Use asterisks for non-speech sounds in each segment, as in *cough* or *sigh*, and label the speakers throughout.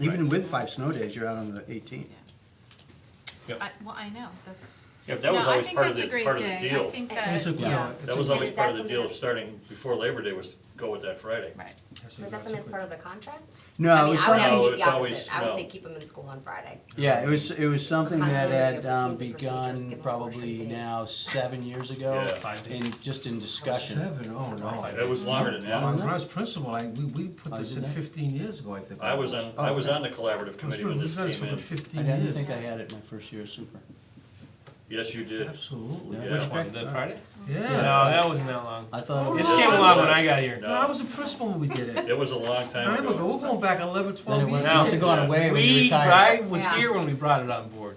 Speaker 1: Even with five snow days, you're out on the eighteenth.
Speaker 2: I, well, I know, that's.
Speaker 3: Yeah, that was
Speaker 2: No, I
Speaker 3: always
Speaker 2: think
Speaker 3: part of
Speaker 2: that's a
Speaker 3: the,
Speaker 2: great
Speaker 3: part of the
Speaker 2: day. I
Speaker 3: deal.
Speaker 2: think
Speaker 4: It's a
Speaker 2: that,
Speaker 4: good-
Speaker 2: yeah,
Speaker 4: it's a
Speaker 3: That was
Speaker 4: good-
Speaker 3: always
Speaker 5: is
Speaker 3: part of
Speaker 5: that
Speaker 3: the deal of
Speaker 5: something-
Speaker 3: starting before Labor Day was to go with that Friday.
Speaker 2: right.
Speaker 4: Yes,
Speaker 5: Was that something that's part of the contract? I
Speaker 1: No, it
Speaker 5: mean,
Speaker 1: was
Speaker 5: I would have
Speaker 3: No,
Speaker 1: something,
Speaker 5: to do
Speaker 3: Oh,
Speaker 5: the
Speaker 3: it's always-
Speaker 5: opposite. I would say
Speaker 3: no.
Speaker 5: keep them in school on Friday.
Speaker 1: yeah, it was, it was something that
Speaker 5: continuity of
Speaker 1: had um,
Speaker 5: routines and procedures, give
Speaker 1: begun
Speaker 5: them
Speaker 1: probably
Speaker 5: portion days.
Speaker 1: now seven years ago,
Speaker 3: Yeah.
Speaker 6: Five days.
Speaker 1: in, just in discussion.
Speaker 4: Seven, oh, no.
Speaker 3: That was longer than
Speaker 4: When
Speaker 3: that.
Speaker 4: I was principal, I, we, we put
Speaker 1: Oh,
Speaker 4: this
Speaker 1: did
Speaker 4: in
Speaker 1: they?
Speaker 4: fifteen years ago, I think.
Speaker 3: I was on, I was on the collaborative
Speaker 4: I was
Speaker 3: committee when this
Speaker 4: responsible
Speaker 3: came in.
Speaker 4: for
Speaker 1: I
Speaker 4: fifteen
Speaker 1: didn't
Speaker 4: years.
Speaker 1: think I had it my first year of super.
Speaker 3: Yes, you did.
Speaker 4: Absolutely,
Speaker 3: Yeah.
Speaker 6: Which one, the Friday? No,
Speaker 4: yeah.
Speaker 6: that wasn't that long.
Speaker 1: I thought it
Speaker 6: It
Speaker 1: was,
Speaker 3: It's-
Speaker 6: came along when I got here.
Speaker 4: No, I was a principal when we did it.
Speaker 3: It was a long
Speaker 4: I
Speaker 3: time
Speaker 4: remember,
Speaker 3: ago.
Speaker 4: we're going back eleven,
Speaker 1: then it
Speaker 4: twelve
Speaker 1: went- it
Speaker 6: No.
Speaker 1: must have
Speaker 4: years.
Speaker 1: gone away when you
Speaker 6: We,
Speaker 1: retired.
Speaker 6: I was
Speaker 5: Yeah.
Speaker 6: here when we brought it on board.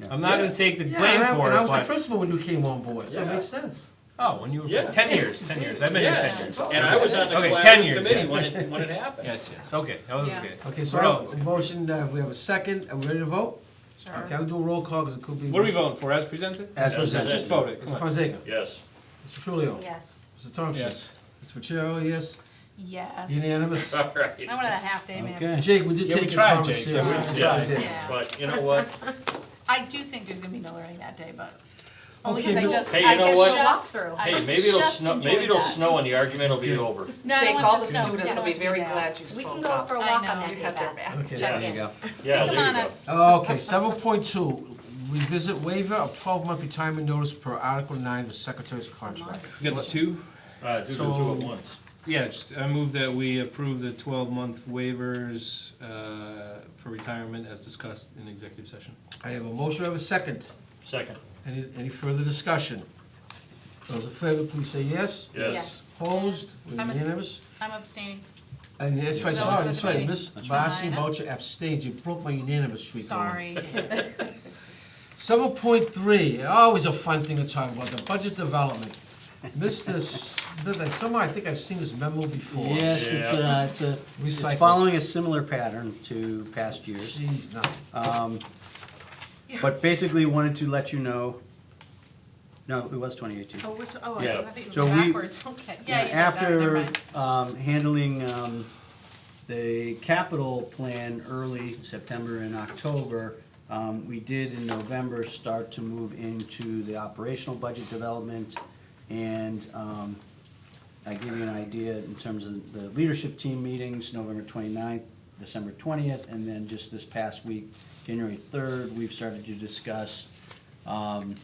Speaker 1: Yeah.
Speaker 6: I'm not gonna take the
Speaker 4: Yeah,
Speaker 6: blame
Speaker 4: and I-
Speaker 6: for
Speaker 4: and I
Speaker 6: it,
Speaker 4: was the
Speaker 6: but,
Speaker 4: principal when you came on board, so it
Speaker 3: Yeah.
Speaker 4: makes sense.
Speaker 6: oh, when you were,
Speaker 3: Yeah.
Speaker 6: ten years, ten years, I've been here ten
Speaker 3: Yes,
Speaker 6: years.
Speaker 3: and I was on the
Speaker 6: Okay, 10
Speaker 3: collaborative
Speaker 6: years,
Speaker 3: committee
Speaker 6: yes.
Speaker 3: when it, when it happened.
Speaker 6: Yes, yes, okay, that was
Speaker 2: Yeah.
Speaker 6: good.
Speaker 4: Okay,
Speaker 6: We're
Speaker 4: so,
Speaker 6: all-
Speaker 4: motion, uh, we have a second, are we ready to vote?
Speaker 2: Sure.
Speaker 4: Okay, I'll do a roll call, because it could be.
Speaker 6: What are we voting for, as presented?
Speaker 1: As
Speaker 3: As
Speaker 1: presented.
Speaker 6: Just vote it,
Speaker 4: Mr.
Speaker 6: come on.
Speaker 4: Fonseca,
Speaker 3: Yes, *laughs*
Speaker 4: Mr. Trulio,
Speaker 5: Yes.
Speaker 4: Mr. Thompson.
Speaker 6: Yes.
Speaker 4: Mr. Pacheco, yes,
Speaker 2: Yes.
Speaker 6: *laughs*
Speaker 4: unanimous.
Speaker 3: all right.
Speaker 2: I wanted a half day, man.
Speaker 1: Okay.
Speaker 4: Jake, we did
Speaker 6: Yeah, we
Speaker 4: take your
Speaker 6: tried,
Speaker 4: comments
Speaker 6: Jake.
Speaker 4: seriously.
Speaker 6: Yeah,
Speaker 3: tried.
Speaker 4: We
Speaker 6: we
Speaker 4: did.
Speaker 2: Yeah.
Speaker 3: But you know what?
Speaker 2: I do think there's gonna be no learning that day, but, only
Speaker 4: Okay,
Speaker 2: because I
Speaker 4: no-
Speaker 2: just,
Speaker 3: Hey,
Speaker 2: I
Speaker 3: you know
Speaker 2: just.
Speaker 3: what?
Speaker 5: Walkthrough.
Speaker 2: *laughs* I
Speaker 3: Hey, maybe it'll
Speaker 2: just
Speaker 3: snow,
Speaker 2: enjoyed
Speaker 3: maybe it'll
Speaker 2: that.
Speaker 3: snow and the argument will be over.
Speaker 2: No, I don't
Speaker 7: Jake,
Speaker 2: want
Speaker 7: all the
Speaker 2: it to snow, 'cause I
Speaker 7: students will
Speaker 2: don't
Speaker 7: be
Speaker 2: want it to
Speaker 7: very
Speaker 2: bad.
Speaker 7: glad you
Speaker 5: We can
Speaker 7: spoke
Speaker 5: go
Speaker 7: up.
Speaker 5: for a
Speaker 2: I
Speaker 5: walk
Speaker 2: know.
Speaker 5: on that
Speaker 2: You
Speaker 5: day,
Speaker 7: had their
Speaker 5: Beth.
Speaker 4: Okay.
Speaker 1: There
Speaker 2: Check
Speaker 1: you
Speaker 2: it.
Speaker 1: go.
Speaker 3: Yeah,
Speaker 2: Sick 'em
Speaker 3: there you
Speaker 2: on
Speaker 3: go.
Speaker 2: us.
Speaker 4: Okay, seven point two, revisit waiver of twelve-month retirement notice per Article nine of the Secretary's contract.
Speaker 6: You got the two?
Speaker 3: Uh, do the two at once.
Speaker 6: Yeah, just, I move that we approve the twelve-month waivers, uh, for retirement as discussed in executive session.
Speaker 4: I have a motion, I have a second.
Speaker 3: Second,
Speaker 4: Any, any further discussion? Those in favor, please say yes.
Speaker 3: yes.
Speaker 5: Yes.
Speaker 4: Opposed, We're
Speaker 2: I'm a s-
Speaker 4: unanimous?
Speaker 2: I'm abstaining,
Speaker 4: And that's right,
Speaker 2: Yes.
Speaker 4: sorry, that's right, Miss
Speaker 2: That's
Speaker 4: Barcy
Speaker 2: fine.
Speaker 4: Boucher abstained, you broke my unanimous streak.
Speaker 2: sorry.
Speaker 3: *laughs*
Speaker 4: Seven point three, always a fun thing to talk about, the budget development. Mr. S- somehow I think I've seen this memo before.
Speaker 1: Yes, it's a, it's a, it's
Speaker 4: Recycle.
Speaker 1: following a similar pattern to past years.
Speaker 4: Jeez, no.
Speaker 1: But basically wanted to let you know, no, it was twenty eighteen.
Speaker 2: Oh, was, oh, I
Speaker 3: Yeah.
Speaker 2: was- I think it
Speaker 1: So
Speaker 2: was
Speaker 1: we-
Speaker 2: backwards, okay, yeah, you did that,
Speaker 1: After
Speaker 2: never mind.
Speaker 1: um, handling um, the capital plan early September and October, um, we did in November start to move into the operational budget development. And um, I give you an idea in terms of the leadership team meetings, November 29th, December twentieth, and then just this past week, January third, we've started to discuss um,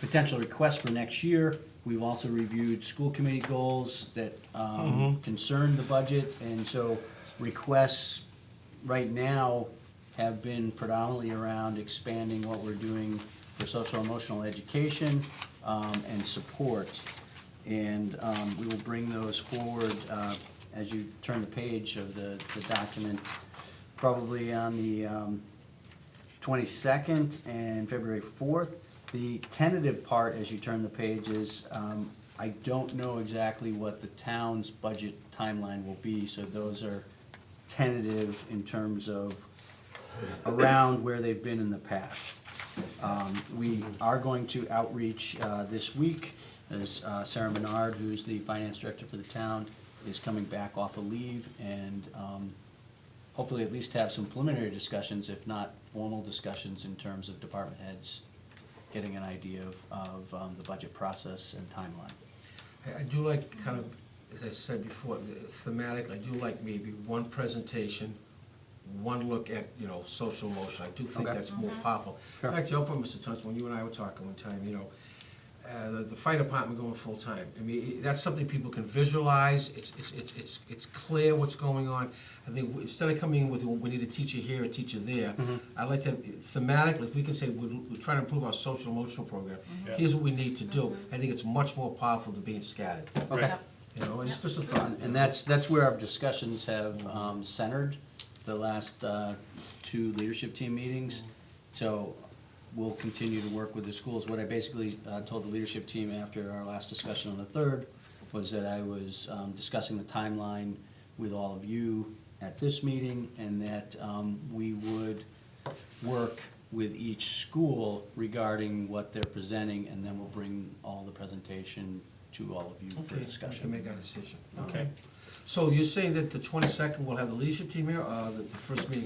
Speaker 1: potential requests for next year. We've also reviewed school committee goals that um, concern the budget, and so requests right now have been predominantly around expanding what we're doing for social emotional education um, and support. And um, we will bring those forward uh, as you turn the page of the the document, probably on the um, 22nd and February 4th. The tentative part, as you turn the page, is um, I don't know exactly what the town's budget timeline will be, so those are tentative in terms of around where they've been in the past. Um, We are going to outreach uh, this week, as uh, Sarah Menard, who's the finance director for the town, is coming back off of leave, and um, hopefully at least have some preliminary discussions, if not formal discussions, in terms of department heads getting an idea of, of um, the budget process and timeline.
Speaker 4: I- I do like kind of, as I said before, the thematic, I do like maybe one presentation, one look at, you know, social emotion. I do think
Speaker 1: Okay.
Speaker 4: that's more powerful.
Speaker 1: Sure.
Speaker 4: In fact, you opened, Mr. Thompson, when you and I were talking one time, you know, uh, the- the fire department going full-time. I mean, i- that's something people can visualize, it's, it's, it's, it's it's clear what's going on. I think w- instead of coming in with, we need a teacher here, a teacher there, I like to thematically, if we can say, we're we're trying to improve our social emotional program.
Speaker 3: Yeah.
Speaker 4: Here's what we need to do. I think it's much more powerful than being scattered.
Speaker 1: Okay.
Speaker 2: Yep.
Speaker 4: You know, it's just a thought.
Speaker 1: And that's, that's where our discussions have um, centered the last uh, two leadership team meetings. So we'll continue to work with the schools. What I basically uh, told the leadership team after our last discussion on the third was that I was um, discussing the timeline with all of you at this meeting and that um, we would work with each school regarding what they're presenting and then we'll bring all the presentation to all of you for
Speaker 4: Okay, we
Speaker 1: discussion.
Speaker 4: can make our decision.
Speaker 3: Okay.
Speaker 4: So you're saying that the twenty-second we'll have the leadership team here, uh, the the first meeting